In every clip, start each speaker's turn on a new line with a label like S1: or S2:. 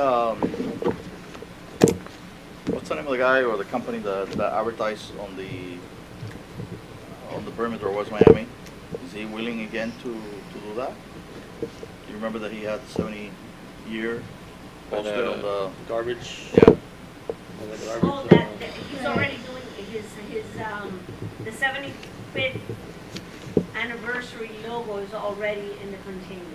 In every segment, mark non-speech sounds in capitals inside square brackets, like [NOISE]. S1: um, what's the name of the guy or the company that, that advertised on the uh, on the perimeter of West Miami? Is he willing again to, to do that? You remember that he had seventy year posted on the
S2: Garbage.
S1: yeah.
S2: on the garbage,
S3: Oh,
S2: uh,
S3: that, that- he's already doing his, his, um, the seventy-fifth anniversary logo is already in the containers.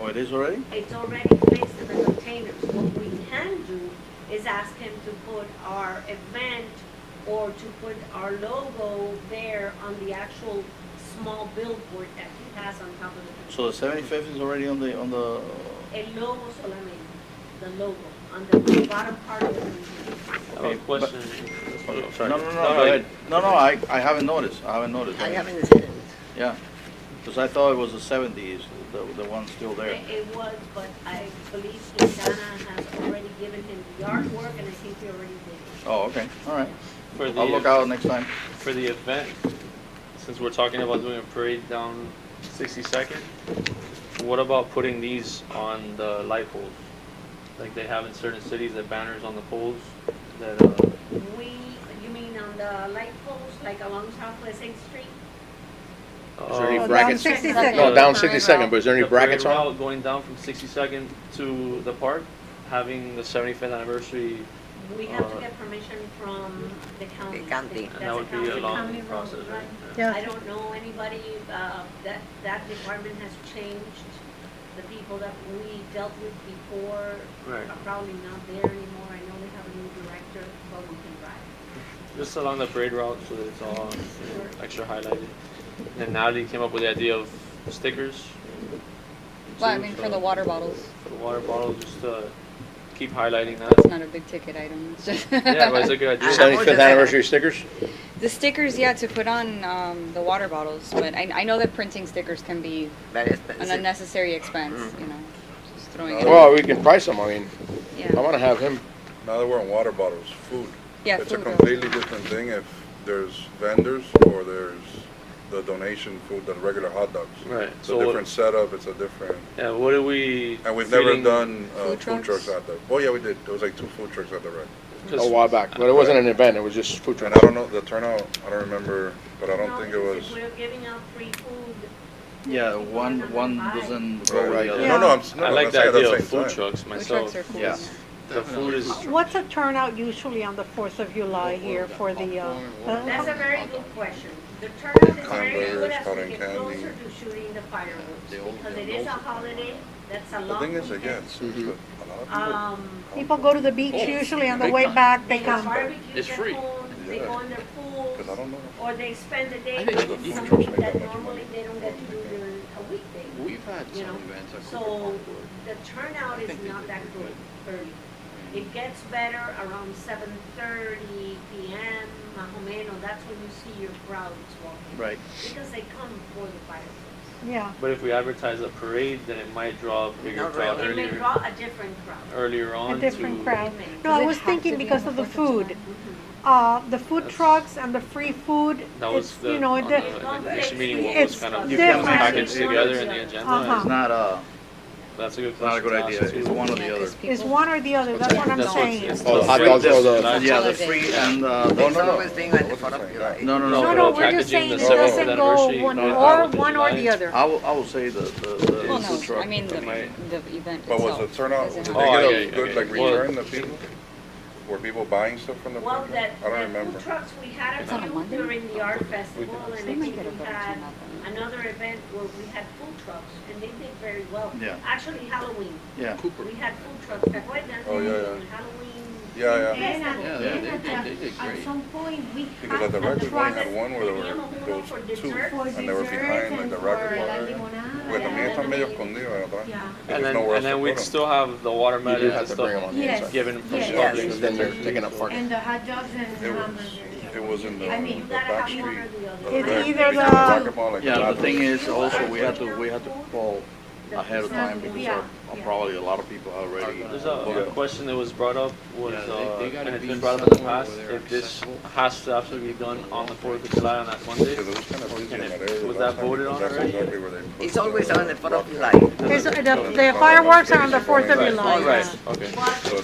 S1: Oh, it is already.
S3: It's already placed in the containers. What we can do is ask him to put our event or to put our logo there on the actual small billboard that he has on top of the.
S1: So the seventy fifth is already on the on the.
S3: El logo solamente, the logo, on the bottom part of the container.
S2: I have a
S1: Okay, but-
S2: question. Oh, sorry.
S1: No, no, no, no, go ahead. no, no. I, I haven't noticed. I haven't noticed.
S4: I
S1: mean,
S4: haven't seen it.
S1: Yeah, because I thought it was the seventies. The the one still there.
S3: It it was, but I believe Quintana has already given him the artwork and I think he already did.
S1: Oh, okay. All right.
S2: For
S1: I'll look
S2: the,
S1: out next time.
S2: for the event, since we're talking about doing a parade down sixty-second, what about putting these on the light poles? Like they have in certain cities, the banners on the poles that, uh,
S3: it. We, you mean on the light post, like along Southwest Eighth Street?
S5: Is there any
S2: uh,
S3: Oh,
S4: down
S5: brackets?
S4: 60
S5: No,
S4: seconds.
S5: down
S4: Parade
S5: 60 second,
S4: route.
S5: but is there any
S2: the parade
S5: brackets on?
S2: route Going down from sixty-second to the park, having the seventy-fifth anniversary,
S3: We have to
S2: Uh,
S3: get permission from the county.
S4: The county.
S3: That's
S2: and that would be
S3: county-
S2: a
S3: county
S2: long
S3: road,
S2: process, right?
S3: right?
S2: Yeah.
S3: I don't know anybody, uh, that, that department has changed. The people that we dealt with before
S2: Right.
S3: are probably not there anymore. I know we have a new director, but we can drive.
S2: Just along the parade route so that it's all you
S3: Mm-hmm.
S2: know, extra highlighted. And Natalie came up with the idea of stickers.
S6: Well, I
S2: too,
S6: mean,
S2: so
S6: for the water bottles,
S2: For the water bottle, just uh, keep highlighting
S7: [LAUGHS]
S6: it's
S2: that.
S6: not a big ticket item. [LAUGHS] it's just-
S2: yeah, but it's a good idea.
S4: Seventy-
S5: 75th anniversary stickers?
S6: [LAUGHS] The stickers, yeah, to put on um, the water bottles, but I, I know that printing stickers can be
S4: Very
S6: an
S4: expensive.
S6: unnecessary expense, you know, just throwing it.
S5: Well, we can price them, I mean, I
S6: Yeah,
S5: wanna have him,
S8: Now that we're on water bottles, food.
S6: yeah,
S8: It's a
S6: food. uh,
S8: completely different thing if there's vendors or there's the donation food than regular hot dogs.
S2: Right.
S8: It's a
S2: So
S8: different
S2: what,
S8: setup, it's a different,
S2: yeah, what are we?
S8: and we've never
S2: feeling-
S8: done uh,
S6: Food
S8: food
S6: trucks?
S8: trucks at the, oh yeah, we did. There was like two food trucks at the rec.
S2: 'cause
S5: a while back, but it wasn't an event, it was just food
S8: And
S5: trucks.
S8: I don't know, the turnout, I don't remember, but I
S3: No,
S8: don't think it
S3: because
S8: was.
S3: if we're giving out free food.
S1: Yeah,
S3: people are
S1: one
S3: not
S1: one
S3: gonna buy.
S1: doesn't go with
S8: Oh, Right.
S1: the other.
S8: No, no, I'm, s- no,
S2: I
S8: I'm
S2: like
S8: saying
S2: the
S8: at the
S2: idea of
S8: same
S2: food
S8: time.
S2: trucks
S6: Food trucks
S2: myself.
S6: are cool.
S1: yeah.
S2: The food is
S7: What's a turnout usually on the Fourth of July
S2: Oh,
S7: here for the, uh,
S3: That's
S7: uh,
S3: a very good question. The turnout is very good
S8: Hamburgers,
S3: as
S8: cotton
S3: we get
S8: candy.
S3: closer to shooting the fireworks, because it is a holiday, that's a
S8: The
S3: long
S8: thing is,
S3: weekend.
S8: again, it's good.
S2: Mm-hmm.
S8: a lot of people.
S3: Um,
S7: people go to the
S2: Oh,
S7: beach usually on the way back,
S3: they
S7: they
S3: have
S7: come.
S3: barbecues
S9: It's
S3: at
S9: free.
S3: home, they
S8: Yeah.
S3: go in their
S8: Cause
S3: pools,
S8: I don't know.
S3: or they spend the day
S9: I think the
S3: doing
S9: food
S8: trucks
S3: something
S8: make that
S3: that
S8: much
S3: normally
S8: money.
S3: they don't get to do during a weekday.
S9: We've had
S3: You
S9: some
S3: know,
S9: events at Cooper
S3: So
S9: Park where
S3: the turnout
S9: I
S3: is
S9: think they
S3: not
S9: did
S3: that good early. It gets better around seven thirty PM, Mahomeno, that's when you see your crowds walking.
S1: Right.
S3: Because they come for the fireworks.
S7: Yeah,
S2: But if we advertise a parade, then it might draw a bigger
S4: Not
S2: crowd
S3: It may
S2: earlier,
S3: draw a different crowd.
S6: Uh,
S2: earlier on.
S7: a different
S2: to-
S7: crowd.
S3: It may.
S7: No,
S6: Does
S7: I
S6: it
S7: was
S6: have to
S7: thinking
S6: be
S7: because
S6: on
S7: of the
S6: the 4th of
S7: food,
S3: Mhm.
S7: uh, the food
S2: That's-
S7: trucks and the free food,
S2: That was
S7: it's,
S2: the,
S7: you know,
S2: on
S7: it,
S2: the
S3: it don't
S2: next
S3: take-
S2: meeting, what was
S7: it's
S2: kind of
S1: You can't
S2: packaged
S3: separate
S2: together
S3: it.
S2: in the agenda.
S1: It's
S7: Uh-huh.
S1: not a
S2: That's a good
S1: not a
S2: question.
S1: good
S2: to
S1: idea.
S2: ask,
S1: It's
S2: too.
S1: one or
S6: Yeah,
S1: the other.
S6: 'cause people-
S7: it's one or the other, that's what I'm
S2: That's what it's-
S7: saying.
S2: it's
S5: Oh,
S2: the
S5: the hot
S2: free-
S5: dogs or the-
S2: that's-
S1: Yeah, the
S6: holiday.
S1: free and uh,
S8: No,
S4: It's
S8: no, no.
S4: always thing on the
S8: Wasn't
S4: Fourth of
S8: saying
S4: July.
S8: that.
S1: no, no, no.
S7: No,
S1: but
S7: no,
S2: the
S7: we're just
S2: packaging,
S7: saying
S2: the
S7: it
S2: separate
S7: doesn't go
S2: anniversary,
S7: one,
S2: the
S7: or
S2: Fourth of
S7: one or the
S2: July.
S7: other.
S1: I will, I will say the the, the
S6: Well,
S1: food
S6: no,
S1: truck.
S6: I mean, the, the event itself.
S8: But was the turnout, did
S6: doesn't
S8: they
S6: have-
S2: Oh,
S8: get
S2: yeah,
S8: a
S2: yeah,
S8: good, like,
S2: yeah. Well-
S8: return of people? Were people buying stuff from the food
S3: Well,
S8: truck?
S3: that,
S8: I don't
S3: the
S8: remember.
S3: food trucks, we had
S6: It's on a
S3: a few
S6: Monday?
S3: during the art festival, and I
S6: They might
S3: think
S6: get a
S3: we
S6: better
S3: had
S6: turnout than that.
S3: another event where we had food trucks, and they did very well.
S1: Yeah.
S3: Actually Halloween,
S1: Yeah.
S9: Cooper.
S3: we had food trucks, that way, that's
S8: Oh, yeah, yeah.
S3: Halloween.
S8: Yeah, yeah.
S9: Yeah,
S3: festival.
S9: they-
S3: And
S9: they-
S3: at the-
S9: they did
S3: At
S9: great.
S3: some point, we
S8: Because at
S3: had
S8: the
S3: a
S8: record, we only
S3: truck,
S8: had one where there were
S3: Teníamos uno
S8: those
S3: for
S8: two,
S3: dessert.
S8: and they were behind, like the record bar. Porque también están medio escondidos, ¿verdad?
S3: yeah.
S2: And
S8: There's
S2: then,
S8: nowhere
S2: and
S8: else
S2: then
S8: to
S2: we'd
S8: put 'em.
S2: still have the
S5: You do
S2: watermelon
S5: have
S2: and
S5: to bring them on
S2: stuff
S5: the
S10: Yes.
S5: inside.
S2: given from
S10: Yes.
S2: the
S4: Yes.
S5: Because then they're taking up parking.
S10: And the hot dogs and
S8: It was,
S10: hamburgers.
S8: it was in the,
S10: I
S3: mean,
S8: the
S3: you gotta
S8: back
S3: have one
S8: street.
S3: or the other.
S8: uh,
S7: It's
S8: there,
S7: either
S8: because
S7: the-
S8: racquetball, like,
S1: Yeah,
S8: lot
S1: the
S8: of-
S1: thing is also we had to we had to call
S3: the-
S1: ahead of time because
S3: Yeah,
S1: uh,
S3: yeah.
S1: probably a lot of people are already.
S2: There's a
S1: booked
S2: a question that was brought up, was,
S4: Yeah, they-
S2: uh,
S4: they gotta
S2: and it's
S4: be
S2: been brought up in the
S4: somewhere
S2: past,
S4: where they're
S2: if this
S4: accessible.
S2: has to absolutely be done on the Fourth of July on that Monday.
S8: Because it was kind of busy in
S2: And
S8: that
S2: it-
S8: area
S2: was
S8: last
S2: that
S8: time,
S2: voted
S8: because
S2: on
S8: that's
S2: already?
S8: exactly where they put
S9: It's always on the Fourth of
S8: rock
S9: July.
S7: There's- The the fireworks are on the Fourth of July.
S2: Right,
S7: yeah.
S2: okay.
S3: But